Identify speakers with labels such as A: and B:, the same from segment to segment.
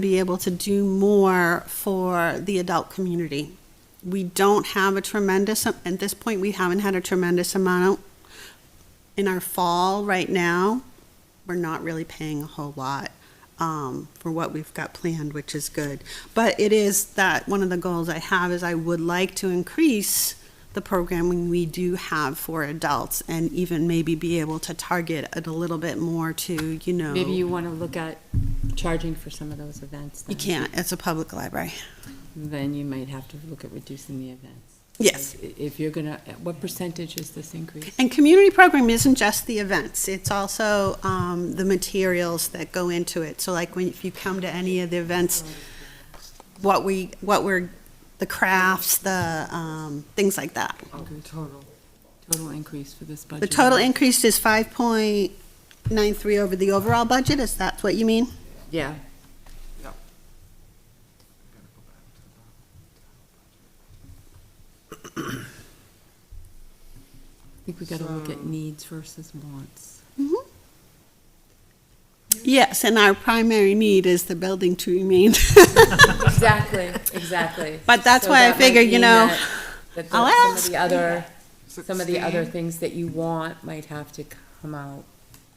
A: be able to do more for the adult community. We don't have a tremendous, at this point, we haven't had a tremendous amount. In our fall right now, we're not really paying a whole lot um, for what we've got planned, which is good. But it is that, one of the goals I have is I would like to increase the programming we do have for adults and even maybe be able to target it a little bit more to, you know.
B: Maybe you want to look at charging for some of those events.
A: You
B: then.
A: can't, it's a public library.
B: Then you might have to look at reducing the events.
A: Yes.
B: Like, i- If you're going to, what percentage is this increase?
A: And community program isn't just the events, it's also um, the materials that go into it. So like when, if you come to any of the events, what we, what we're, the crafts, the, um, things like that.
B: Total. Total increase for this budget.
A: The total increase is five point nine three over the overall budget, is that what you mean?
B: Yeah. I think we got to look at needs versus wants.
A: Mm-hmm. Yes, and our primary need is the building to remain. Mm-hmm.
B: Exactly, exactly.
A: But that's
B: So
A: why I
B: that might
A: figured, you
B: mean
A: know,
B: that- that the-
A: I'll
B: Some of
A: ask.
B: the other, some of the other things that you want might have to come out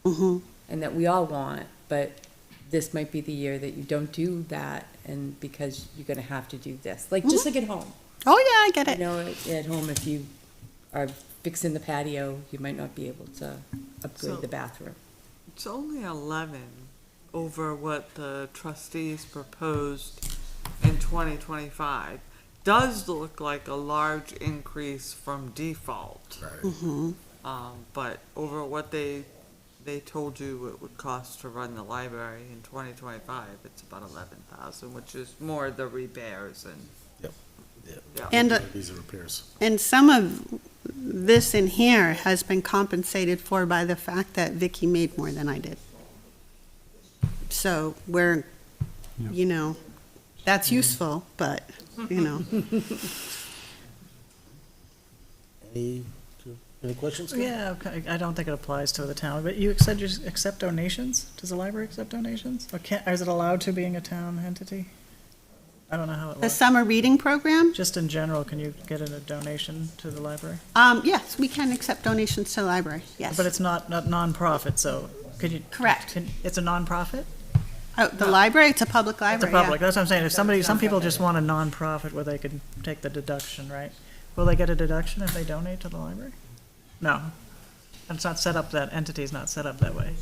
A: Mhm.
B: and that we all want, but this might be the year that you don't do that and because you're gonna have to do this, like, just like at home.
A: Oh, yeah, I get
B: You
A: it.
B: know, at- at home, if you are fixing the patio, you might not be able to upgrade
C: So-
B: the bathroom.
C: It's only eleven over what the trustees proposed in twenty twenty-five. Does look like a large increase from default.
A: Mm-hmm.
C: Um, but over what they, they told you it would cost to run the library in twenty twenty-five, it's about eleven thousand, which is more the repairs and.
D: Yep, yep.
A: And uh,
D: These are repairs.
A: And some of this in here has been compensated for by the fact that Vicky made more than I did. So we're, you know, that's useful, but, you know.
D: Any, any questions?
E: Yeah, okay, I don't think it applies to the town, but you said you accept donations? Does the library accept donations? Or can't, is it allowed to being a town entity? I don't know how it
A: The
E: works.
A: summer reading program,
E: Just in general, can you get a donation to the library?
A: um, yes, we can accept donations to the library, yes.
E: But it's not, not nonprofit, so could you?
A: Correct.
E: can- It's a nonprofit?
A: Oh, the library, it's a public
E: It's a
A: library, yeah.
E: public, that's what I'm saying. If somebody, some people just want a nonprofit where they can take the deduction, right? Will they get a deduction if they donate to the library? No. It's not set up that, entity's not set up that way.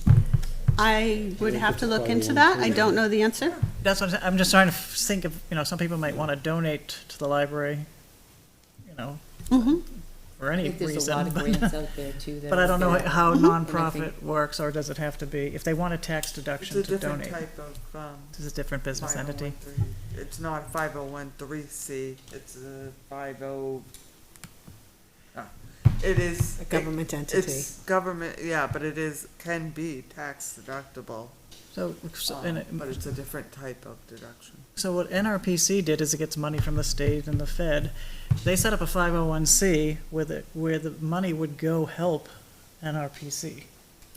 A: I would have to look into that, I don't know the answer.
E: That's what I'm, saying. I'm just trying to f- think of, you know, some people might want to donate to the library, you know,
A: Mhm.
E: for
B: I
E: any
B: think there's a lot
E: reason.
B: of
E: But
B: grants out there too. that
E: but I
B: are
E: don't know
B: available.
E: how
B: And I
E: nonprofit works, or does it have to be, if they want a tax
C: It's
E: deduction
C: a
E: to
C: different
E: donate,
C: type of, um.
E: it's a different business entity.
C: 501(c)(3). It's not five oh one three C, it's a five oh. ah, It is.
F: A government
C: it-
F: entity.
C: It's government, yeah, but it is, can be tax deductible,
E: So, so-
C: um,
E: and it-
C: but it's a different type of deduction.
E: So what NRPC did is it gets money from the state and the Fed. They set up a 501c where the, where the money would go help NRPC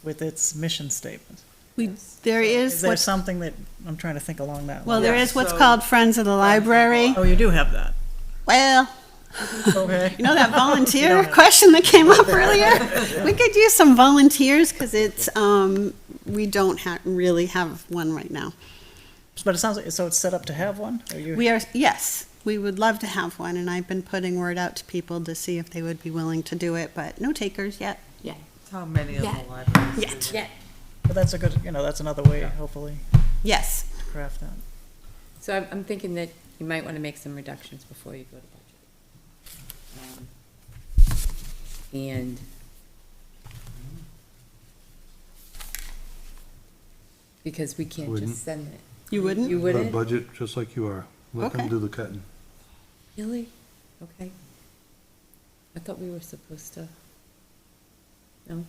E: with its mission statement.
A: We, there
E: Is
A: is,
E: there
A: what's-
E: something that, I'm trying to think along that
A: well,
E: line.
A: there
C: Yeah,
A: is what's
C: so-
A: called Friends of the Library.
E: Oh, you do have that,
A: Well,
E: okay.
A: You know that volunteer question that came up earlier? We could use some volunteers because it's, um, we don't ha- really have one right now.
E: But it sounds like, so it's set up to have one, or you,
A: We are, yes, we would love to have one and I've been putting word out to people to see if they would be willing to do it, but no takers yet.
C: It's how many of
B: Yeah.
C: the libraries. do
A: Yet.
C: that.
E: but that's a good, you know, that's another way, hopefully,
A: Yes,
E: to craft that.
B: So I'm, I'm thinking that you might want to make some reductions before you go to budget. Um, And because we can't
G: Wouldn't.
B: just send it.
A: you wouldn't?
B: You
G: Put a
B: wouldn't?
G: budget just like you are. Let
A: Okay.
G: them do the cutting.
B: Really? Okay. I thought we were supposed to. No?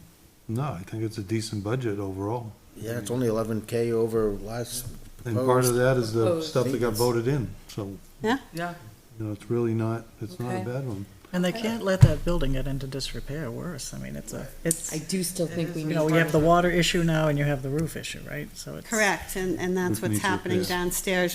G: No, I think it's a decent budget overall.
D: Yeah, it's only eleven K over last
G: And part of
D: proposed.
G: that is the
B: Proposed.
G: stuff that got voted in, so,
A: Yeah,
C: Yeah,
G: you know, it's really not, it's not a
B: Okay.
G: bad one.
E: And they can't let that building get into disrepair worse. I mean, it's a, it's,
B: I do still think we
E: you
B: need.
E: know, you have the water issue now and you have the roof issue, right? So it's.
A: Correct, and, and that's
G: Which
A: what's
G: needs
A: happening
G: repairs.
A: downstairs